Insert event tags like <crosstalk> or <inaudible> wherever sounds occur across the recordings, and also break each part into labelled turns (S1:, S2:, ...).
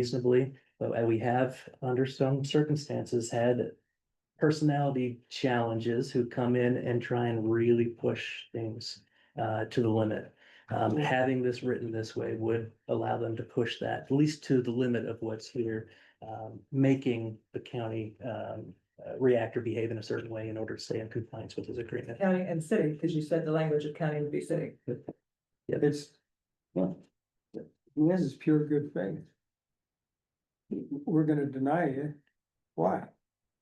S1: reasonably, but we have, under some circumstances, had personality challenges who come in and try and really push things uh, to the limit. Um, having this written this way would allow them to push that, at least to the limit of what's here, um, making the county um, uh, reactor behave in a certain way in order to stay in compliance with his agreement.
S2: County and city, because you said the language of county would be city.
S3: It's, well, this is pure good faith. We're gonna deny you. Why?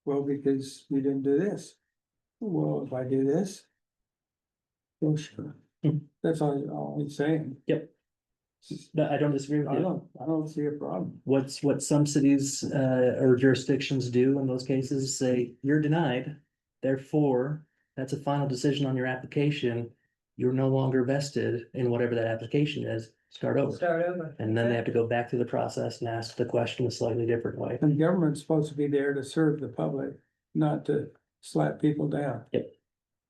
S3: Well, because we didn't do this. Well, if I do this. Well, sure.
S1: Hmm.
S3: That's all, all I'm saying.
S1: Yep. No, I don't disagree with
S3: I
S1: you.
S3: don't, I don't see a problem.
S1: What's what some cities uh, or jurisdictions do in those cases is say you're denied. Therefore, that's a final decision on your application. You're no longer vested in whatever that application is. Start over.
S2: Start over.
S1: Oh, And then they have to go back through the process and ask the question a slightly different way.
S2: Hmm.
S3: And government's supposed to be there to serve the public, not to slap people down.
S1: Yep.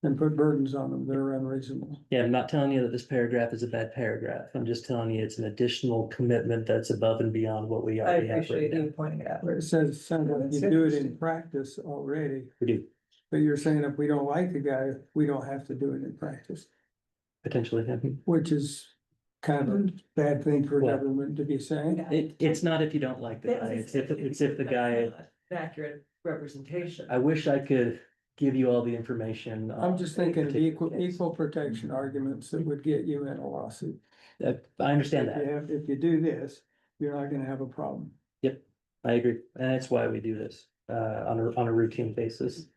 S3: And put burdens on them that are unreasonable.
S1: Yeah, I'm not telling you that this paragraph is a bad paragraph. I'm just telling you it's an additional commitment that's above and beyond what we
S2: I
S1: already have
S2: appreciate
S1: written
S2: you
S1: down.
S2: pointing it out.
S3: Where it says, sometimes you do it in practice already.
S1: We do,
S3: But you're saying if we don't like the guy, we don't have to do it in practice,
S1: potentially. <laughs> mhm.
S3: which is kind of a bad thing for
S1: Well-
S3: government to be saying.
S1: It, it's not if you don't like the guy, it's if, it's if the guy,
S2: An accurate representation.
S1: I wish I could give you all the information. uh, on
S3: I'm just thinking of
S1: any
S3: equal,
S1: particular case.
S3: equal protection arguments that would get you in a lawsuit.
S1: Uh, I understand
S3: If you
S1: that.
S3: have- If you do this, you're not gonna have a problem.
S1: I agree. And that's why we do this, uh, on a, on a routine basis.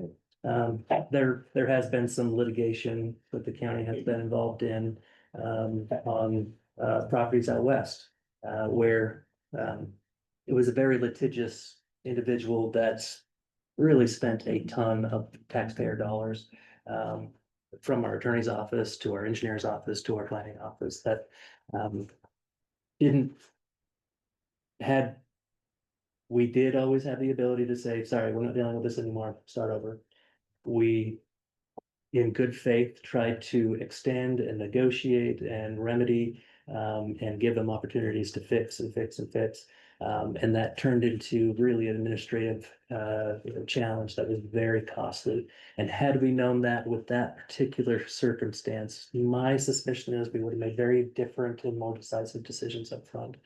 S1: Um, there, there has been some litigation that the county has been involved in, um, on, uh, properties out west. Uh, where, um, it was a very litigious individual that's really spent a ton of taxpayer dollars. Um, from our attorney's office to our engineer's office to our planning office that, um, didn't. Had we did always have the ability to say, sorry, we're not dealing with this anymore, start over. We. In good faith, tried to extend and negotiate and remedy um, and give them opportunities to fix and fix and fix. Um, and that turned into really an administrative uh challenge that was very costly. And had we known that with that particular circumstance, my suspicion is we would have made very different and more decisive decisions up front.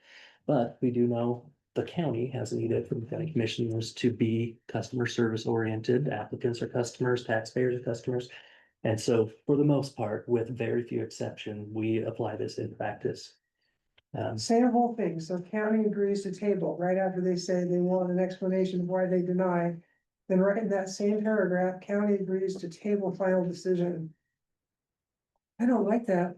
S1: But we do know the county has needed from the county commissioners to be customer service oriented. Applicants are customers, taxpayers are customers. And so for the most part, with very few exception, we apply this in practice. Um,
S4: Say the whole thing, so county agrees to table, right after they say they want an explanation of why they deny. Then right in that same paragraph, county agrees to table final decision. I don't like that,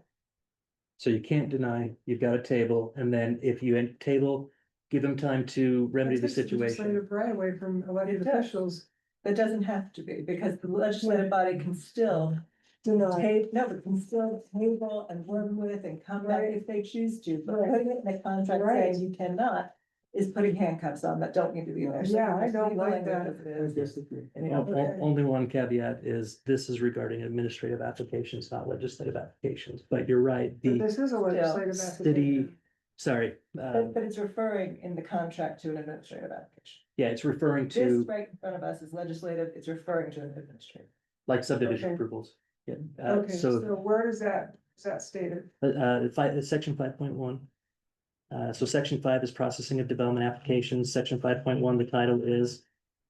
S1: so you can't deny, you've got a table, and then if you end table, give them time to remedy the
S4: That takes
S1: situation.
S4: legislative Right away from
S2: It
S4: elected
S2: does.
S4: officials,
S2: That doesn't have to be, because the legislative body can still
S4: deny,
S2: table, no, but can still table and work with and come back
S4: Right.
S2: if they choose to. But
S4: Right.
S2: putting it in a contract
S4: Right.
S2: saying you cannot is putting handcuffs on that don't need to be there. So
S4: Yeah, I
S2: just
S4: don't
S2: leave the
S4: like
S2: language
S4: that.
S2: as it
S3: I
S2: is.
S3: disagree.
S2: And, you
S1: O-
S2: know,
S1: o- Only one caveat is this is regarding administrative applications, not legislative applications, but you're right,
S4: but
S1: the,
S4: this is a legislative.
S1: city-
S4: application.
S1: sorry. uh,
S2: But, but it's referring in the contract to an administrative application.
S1: Yeah, it's referring
S2: This
S1: to
S2: right in front of us is legislative, it's referring to an administrative.
S1: like subdivision
S4: okay.
S1: approvals. Yeah, uh,
S4: Okay, so
S1: so
S4: where is that, is that stated?
S1: uh, uh, five, section five point one. Uh, so section five is processing of development applications. Section five point one, the title is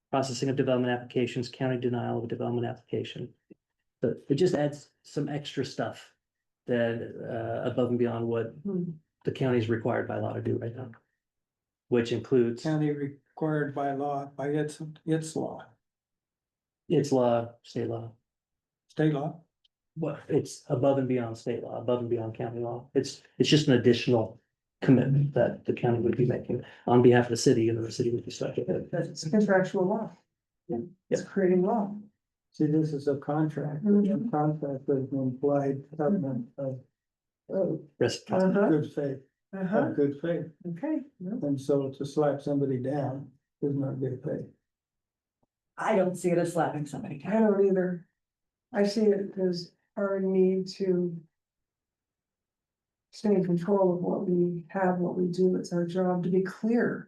S1: processing of development applications, county denial of a development application. But it just adds some extra stuff that uh, above and beyond what
S2: Hmm.
S1: the county is required by law to do right now. Which includes
S3: County required by law, by its, its law,
S1: its law, state law.
S3: state law.
S1: Well, it's above and beyond state law, above and beyond county law. It's, it's just an additional commitment that the county would be making on behalf of the city and the city would be stuck with it.
S4: That's contractual law.
S1: Yeah.
S4: It's creating law.
S3: See, this is a contract, a
S4: Mhm.
S3: contract with an implied covenant of
S4: Oh,
S1: Reciprocity.
S4: uh-huh,
S3: good faith,
S4: uh-huh,
S3: of good faith.
S4: okay. no.
S3: And so to slap somebody down is not good faith.
S2: I don't see it as slapping somebody down.
S4: I don't either. I see it as our need to. Stay in control of what we have, what we do. It's our job to be clear.